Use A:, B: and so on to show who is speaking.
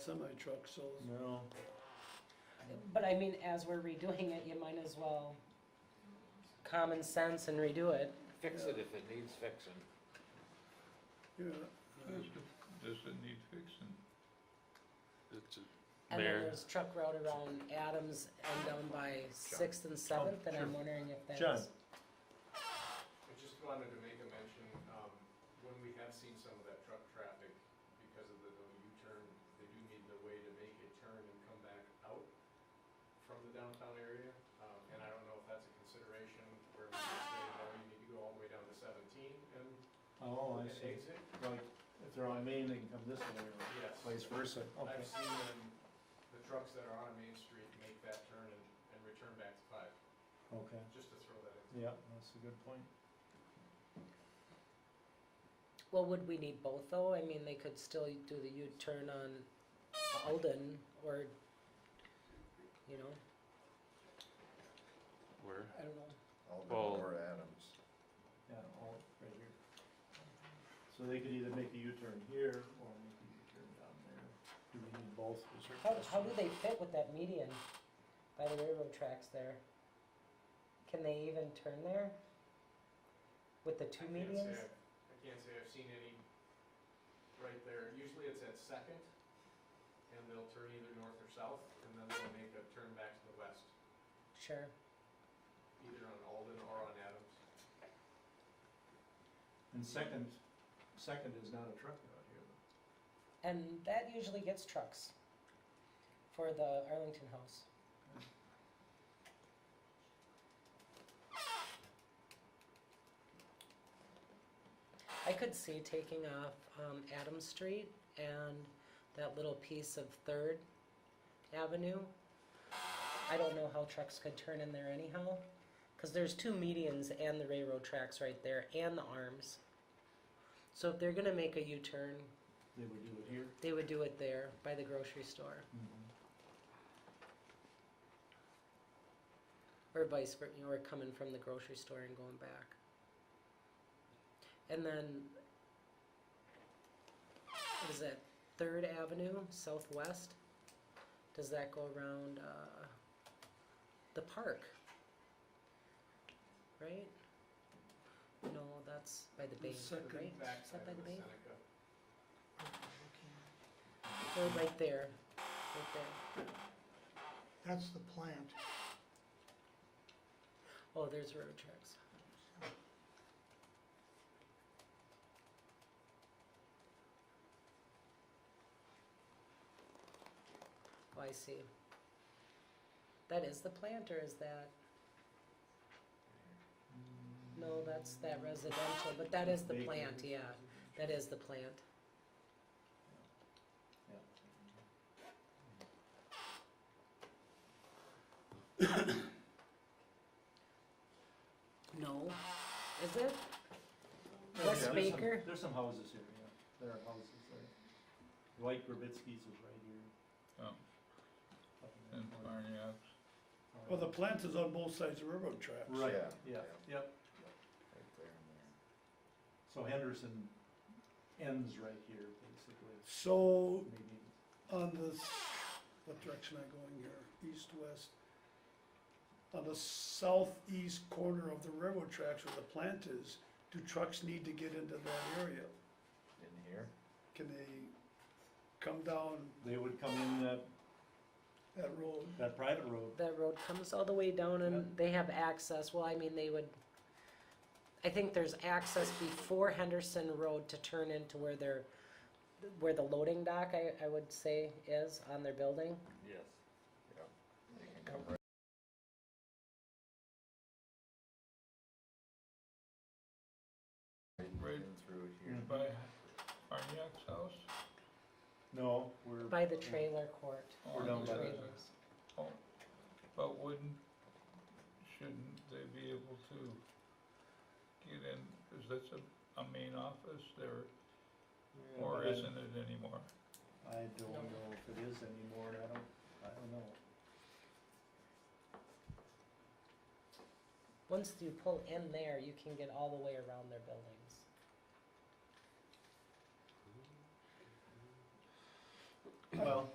A: semi truck, so
B: No.
C: But I mean, as we're redoing it, you might as well common sense and redo it.
D: Fix it if it needs fixing.
A: yeah.
E: Does it- does it need fixing?
F: It's a-
C: And then
F: There.
C: there's truck route around Adams and down by Sixth
G: Oh,
C: and Seventh, and I'm wondering if that's.
B: John.
G: I just wanted to make a mention, um, when we have seen some of that truck traffic, because of the no U-turn, they do need the way to make a turn and come back out from the downtown area, um, and I don't know if that's a consideration, where we just say, no, you need to go all the way down to seventeen and
D: Mm-hmm.
B: Oh, I
G: and
B: see.
G: exit.
B: Like, if they're on Main, they can come this way or
G: Yes,
B: vice versa. Okay.
G: I've seen them, the trucks that are on Main Street make that turn and, and return back to five,
B: Okay.
G: just to throw that in.
B: Yeah, that's a good point.
C: Well, would we need both though? I mean, they could still do the U-turn on Alden or, you know,
F: where?
C: I don't know.
F: Well-
H: Alden or Adams.
B: Yeah, all right here. So they could either make a U-turn here or make a U-turn down there. Do we need both? Is your
C: How, how do
B: question?
C: they fit with that median by the railroad tracks there? Can they even turn there? With the two
G: I can't say
C: medians?
G: I've- I can't say I've seen any right there. Usually it's at Second, and they'll turn either north or south, and then they'll make a turn back to the west,
C: Sure.
G: either on Alden or on Adams.
B: And second, second is not a truck route here. though.
C: And that usually gets trucks for the Arlington House. I could see taking off um, Adams Street and that little piece of Third Avenue. I don't know how trucks could turn in there anyhow, because there's two medians and the railroad tracks right there and the arms. So if they're gonna make a U-turn,
B: They would do it here.
C: they would do it there by the grocery store or vice versa, or coming from the grocery store and going back. And then, what is that, Third Avenue Southwest? Does that go around uh, the park? Right? No, that's by the bay,
A: second
C: right?
G: Back
C: Is that
G: side
C: by
G: of
C: the
G: the
C: bay?
G: Seneca.
C: Or right there, right there.
E: That's the plant.
C: Oh, there's road tracks. Oh, I see. That is the plant or is that, no, that's that residential, but that is the
B: Bakery.
C: plant, yeah, that is the plant.
B: Yeah.
C: No, is it?
B: Yeah,
C: Wes
B: there's some-
C: Baker?
B: There's some houses here, yeah. There are houses there. Dwight Grabitsky's is right here.
E: Oh.
B: up in that
E: And
B: corner.
E: Marniac,
A: Well, the plant is on both sides of railroad tracks.
B: Right,
H: Yeah,
B: yeah, yep.
H: Right there and
B: So Henderson ends right here, basically.
A: So
B: Maybe,
A: on this, what direction am I going here? East, west? On the southeast corner of the railroad tracks where the plant is, do trucks need to get into that area?
H: there. In here?
A: Can they come down
B: they would come in that,
A: that road?
B: that private road.
C: That road comes all the way down and they have access, well, I mean, they would, I think there's access before Henderson Road to turn into where their, where the loading dock, I, I would say, is on their building.
D: Yes.
H: They can come right right in through it
B: Mm.
H: here.
E: by Marniac's house?
B: No, we're.
C: By the trailer court.
E: Oh,
B: We're down by
E: yeah.
B: the-
C: Trailers.
E: Oh, But wouldn't, shouldn't they be able to get in, is this a, a main office there,
B: Yeah,
E: or
B: but I-
E: isn't it anymore?
B: I don't know if it is anymore, and I don't, I don't know.
C: Once you pull in there, you can get all the way around their buildings.
H: Mm-hmm.
B: Well,